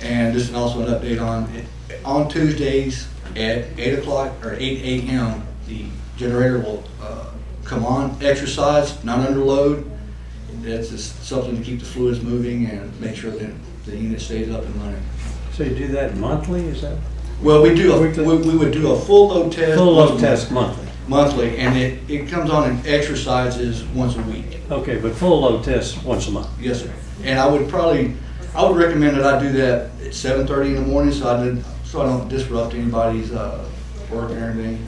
And just also an update on, on Tuesdays at eight o'clock or eight AM, the generator will, uh, come on, exercise, not under load. That's just something to keep the fluids moving and make sure that the unit stays up and running. So you do that monthly, is that? Well, we do, a- Weekly? we, we would do a full load test. Full load test monthly. Monthly, and it, it comes on and exercises once a week. Okay, but full load test once a month. Yes, sir. And I would probably, I would recommend that I do that at seven thirty in the morning, so I didn't, so I don't disrupt anybody's, uh, work or anything.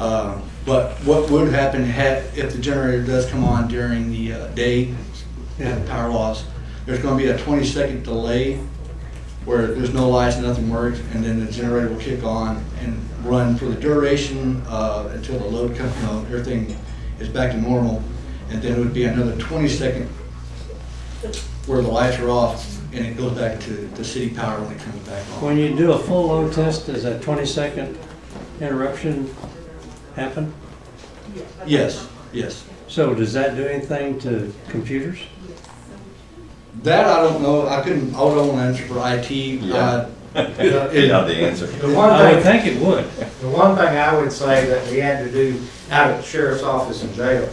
Uh, But what would happen had, if the generator does come on during the uh, day, Yeah. power loss, there's gonna be a twenty-second delay where there's no lights, nothing works, and then the generator will kick on and run for the duration, uh, until the load comes, you know, everything is back to normal. And then it would be another twenty-second where the lights are off, and it goes back to, to city power when it comes back on. When you do a full load test, does that twenty-second interruption happen? Yes, yes. So does that do anything to computers? That I don't know, I couldn't, I don't wanna answer for IT. Yeah. Uh, You know the answer. The I one would thing, think it would. the one thing I would say that we had to do out at the sheriff's office and jail,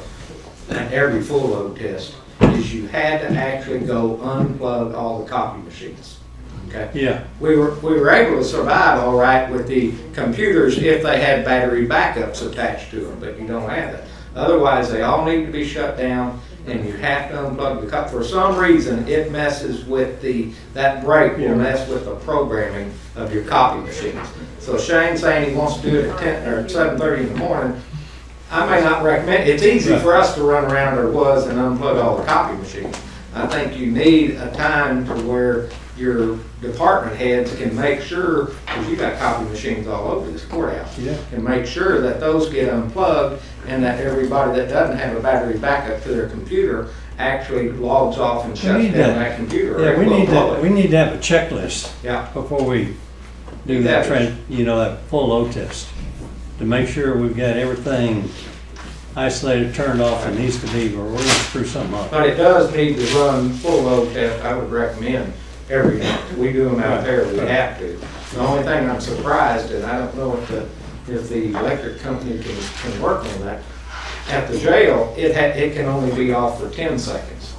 and every full load test, is you had to actually go unplug all the copy machines, okay? Yeah, We were, we were able to survive all right with the computers if they had battery backups attached to them, but you don't have that. Otherwise, they all need to be shut down and you have to unplug the cup. For some reason, it messes with the, that break Yeah. will mess with the programming of your copy machines. So Shane's saying he wants to do it at ten, or seven thirty in the morning. I may not recommend, it's easy for us to run around there was and unplug all the copy machines. I think you need a time to where your department heads can make sure, because you got copy machines all over this courthouse. Yeah. Can make sure that those get unplugged and that everybody that doesn't have a battery backup to their computer actually logs off and shuts need down that. that computer. or yeah, it we will need blow to, it. we need to have a checklist Yeah, before we do Do that that. tran, you know, that full load test. To make sure we've got everything isolated, turned off, and needs to be, or we're gonna screw something up. but it does need to run full load test, I would recommend every month. We do them out there, we have to. The only thing I'm surprised, and I don't know if the, if the electric company can, can work on that, at the jail, it ha it can only be off for ten seconds.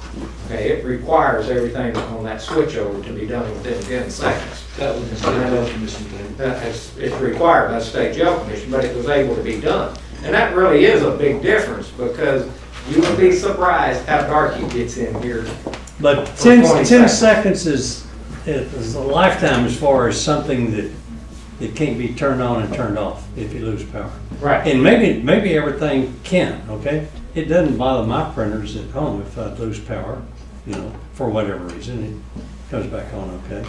Okay, it requires everything on that switch over to be done within ten seconds. That was the state health commission thing. that is, it's required by the state jail commission, but it was able to be done. And that really is a big difference, because you would be surprised how dark it gets in here. But For 10 10 20 seconds. seconds is, is a lifetime as far as something that, that can't be turned on and turned off if you lose power. Right. And maybe, maybe everything can, okay? It doesn't bother my printers at home if I lose power, you know, for whatever reason, it comes back on, okay?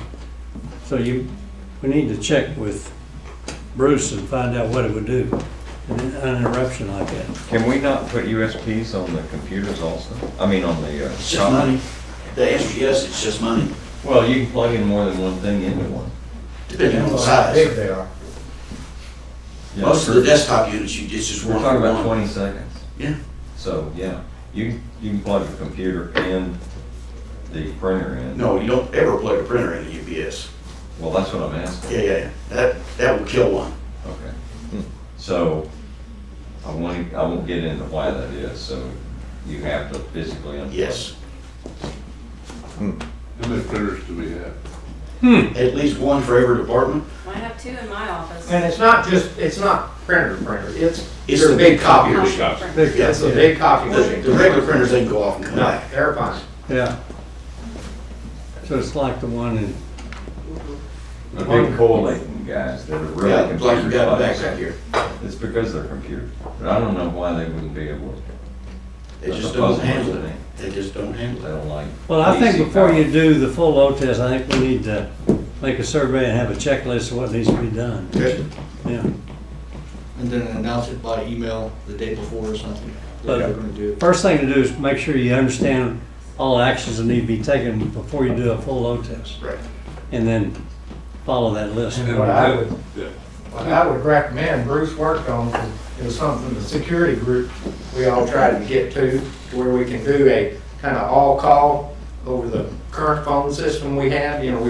So you, we need to check with Bruce and find out what it would do, an interruption like that. Can we not put USBs on the computers also? I mean, on the, uh, It's just money. The answer is yes, it's just money. well, you can plug in more than one thing into one. Depending on the How big size. they are. Yeah, Most of the we're- desktop units, you it's just We're one. talking about one. twenty seconds. Yeah. So, yeah, you, you can plug the computer and the printer in. No, you don't ever plug a printer in a UPS. Well, that's what I'm asking. Yeah, yeah, yeah. that, that will kill one. Okay. So, I won't, I won't get into why that is, so you have to physically unplug. Yes, How many printers do we have? at least one for every department. I have two in my office. And it's not just, it's not printer printer, it's It's your the big big copy copier. machine. Big- yeah. It's a big copy The, machine. the regular printers, they can go off and come No, back. they're fine. Yeah. So it's like the one in The big collating guys that are really Yeah, computer. like you got back bugs. out here. It's because they're computers, but I don't know why they wouldn't be able to, They That's just a don't puzzle, handle isn't it. it? They just don't they handle it. don't like. Well, I think PC before power. you do the full load test, I think we need to make a survey and have a checklist of what needs to be done. Okay. Yeah. And then announce it by email the day before or something, that Okay. we're gonna do. First thing to do is make sure you understand all actions that need to be taken before you do a full load test. Right. And then follow that list. What I would, Yeah. what I would recommend Bruce worked on is something the security group, we all tried to get to, where we can do a kind of all-call over the current phone system we have, you know, we